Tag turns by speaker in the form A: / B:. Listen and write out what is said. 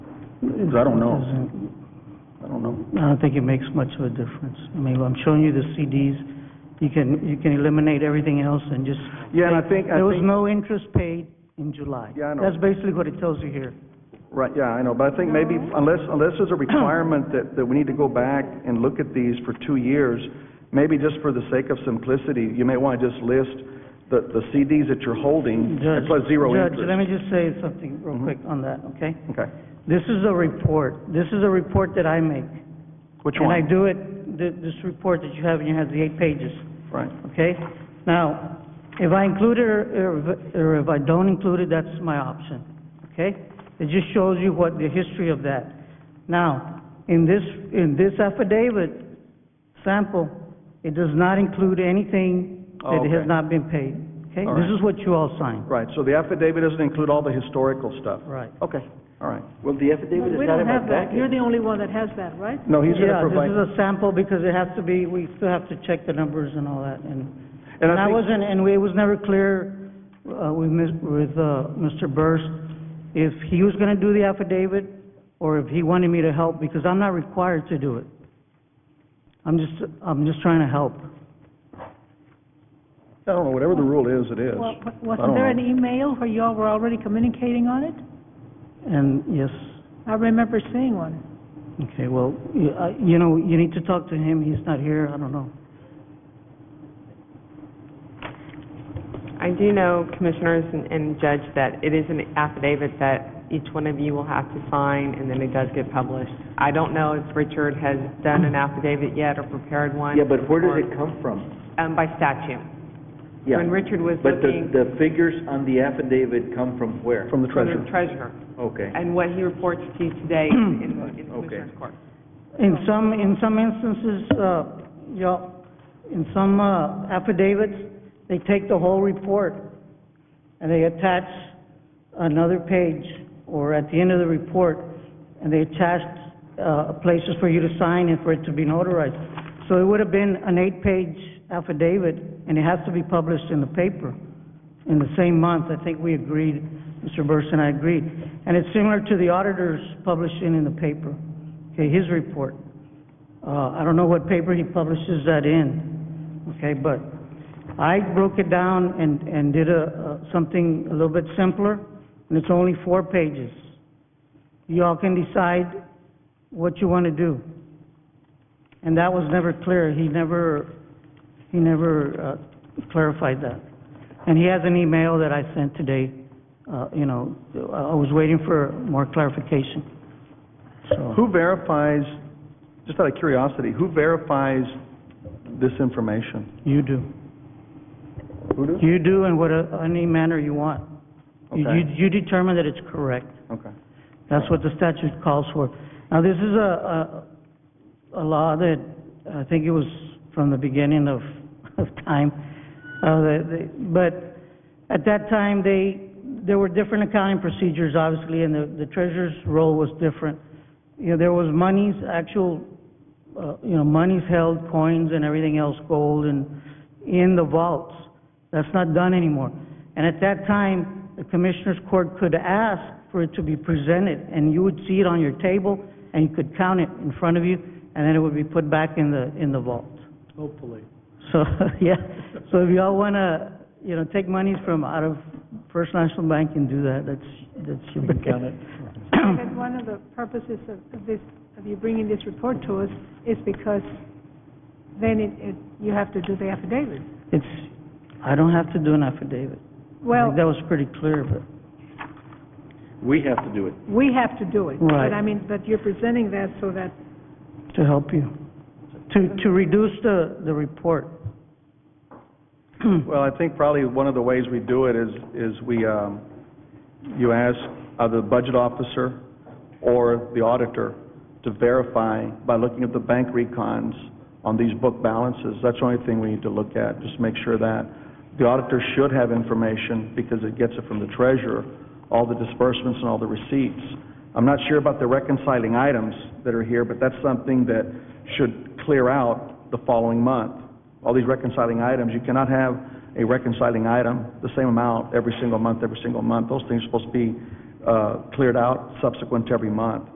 A: I don't know. I don't know.
B: I don't think it makes much of a difference. I mean, I'm showing you the CDs, you can, you can eliminate everything else and just...
A: Yeah, and I think, I
B: There was
A: think,
B: no interest paid in July.
A: Yeah, I know.
B: That's basically what it tells you here.
A: right, yeah, I know, but I think maybe unless, unless there's a requirement that, that we need to go back and look at these for two years, maybe just for the sake of simplicity, you may want to just list the, the CDs that you're holding
B: Judge-
A: and plus zero
B: Judge,
A: interest.
B: let
A: Mm-hmm.
B: me just say something real quick on that, okay?
A: Okay,
B: This is a report, this is a report that I make.
A: which
B: And I
A: one?
B: do it, th- this report that you have, and you have the eight pages,
A: Right,
B: okay? Now, if I include it or or if- or if I don't include it, that's my option, okay? It just shows you what the history of that. Now, in this, in this affidavit sample, it does not include anything
A: Oh,
B: that has
A: okay.
B: not been paid, okay?
A: All
B: This
A: right.
B: is what you all signed,
A: right, so the affidavit doesn't include all the historical stuff.
B: right?
A: Okay, all right.
C: Well, the affidavit is
D: We
C: not in
D: don't
C: my
D: have that.
C: packet.
D: You're the only one that has that, right?
A: No, he's going to
B: Yeah,
A: provide.
B: this is a sample because it has to be, we still have to check the numbers and all that, and...
A: And
B: And
A: I
B: I
A: think,
B: wasn't, and we- it was never clear uh, with Ms- with uh, Mr. Burst if he was going to do the affidavit or if he wanted me to help, because I'm not required to do it. I'm just, I'm just trying to help.
A: I don't know, whatever the rule is, it is.
D: Well, wa-
A: I
D: Wasn't
A: don't
D: there
A: know.
D: an email where y'all were already communicating on it?
B: And yes,
D: I remember seeing one.
B: okay, well, you- I- you know, you need to talk to him, he's not here, I don't know.
E: I do know, Commissioners and- and Judge, that it is an affidavit that each one of you will have to sign, and then it does get published. I don't know if Richard has done an affidavit yet or prepared one.
C: Yeah, but where
E: or-
C: does it come from?
E: Um, by statute.
C: Yeah.
E: When Richard was
C: But the,
E: looking
C: the figures on the affidavit come from where?
A: From the
E: for the
A: treasurer.
E: treasurer,
C: Okay.
E: and what he reports to you today in, in the Commissioners Court.
B: In some, in some instances, uh, y'all, in some uh, affidavits, they take the whole report and they attach another page, or at the end of the report, and they attach, uh, places for you to sign and for it to be notarized. So it would have been an eight-page affidavit, and it has to be published in the paper in the same month. I think we agreed, Mr. Burst and I agreed. And it's similar to the auditor's publishing in the paper, okay, his report. Uh, I don't know what paper he publishes that in, okay, but I broke it down and, and did a, a- something a little bit simpler, and it's only four pages. You all can decide what you want to do. And that was never clear, he never, he never uh, clarified that. And he has an email that I sent today, uh, you know, I I was waiting for more clarification, so.
A: Who verifies, just out of curiosity, who verifies this information?
B: You do.
A: Who does?
B: You do in what, uh, any manner you want. You,
A: Okay.
B: you- you determine that it's correct.
A: Okay.
B: That's what the statute calls for. Now, this is a, a, a law that, I think it was from the beginning of, of time. Uh, the- the- but at that time, they, there were different accounting procedures, obviously, and the, the treasurer's role was different. You know, there was monies, actual, uh, you know, monies held, coins and everything else, gold and, in the vaults. That's not done anymore. And at that time, the Commissioners Court could ask for it to be presented, and you would see it on your table, and you could count it in front of you, and then it would be put back in the, in the vault. Hopefully. So, yeah, so if y'all wanna, you know, take monies from out of First National Bank and do that, that's, that's. We can count it.
D: Because one of the purposes of of this, of you bringing this report to us is because then it, it, you have to do the affidavit.
B: It's, I don't have to do an affidavit. I
D: Well,
B: think that was pretty clear, but.
C: We have to do it.
D: we have to do it.
B: Right.
D: But I mean, but you're presenting that so that,
B: to help you, to, to reduce the, the report.
A: Well, I think probably one of the ways we do it is, is we, um, you ask either the budget officer or the auditor to verify by looking at the bank recons on these book balances. That's the only thing we need to look at, just make sure that. The auditor should have information because it gets it from the treasurer, all the disbursements and all the receipts. I'm not sure about the reconciling items that are here, but that's something that should clear out the following month. All these reconciling items, you cannot have a reconciling item, the same amount every single month, every single month. Those things are supposed to be uh, cleared out subsequent to every month.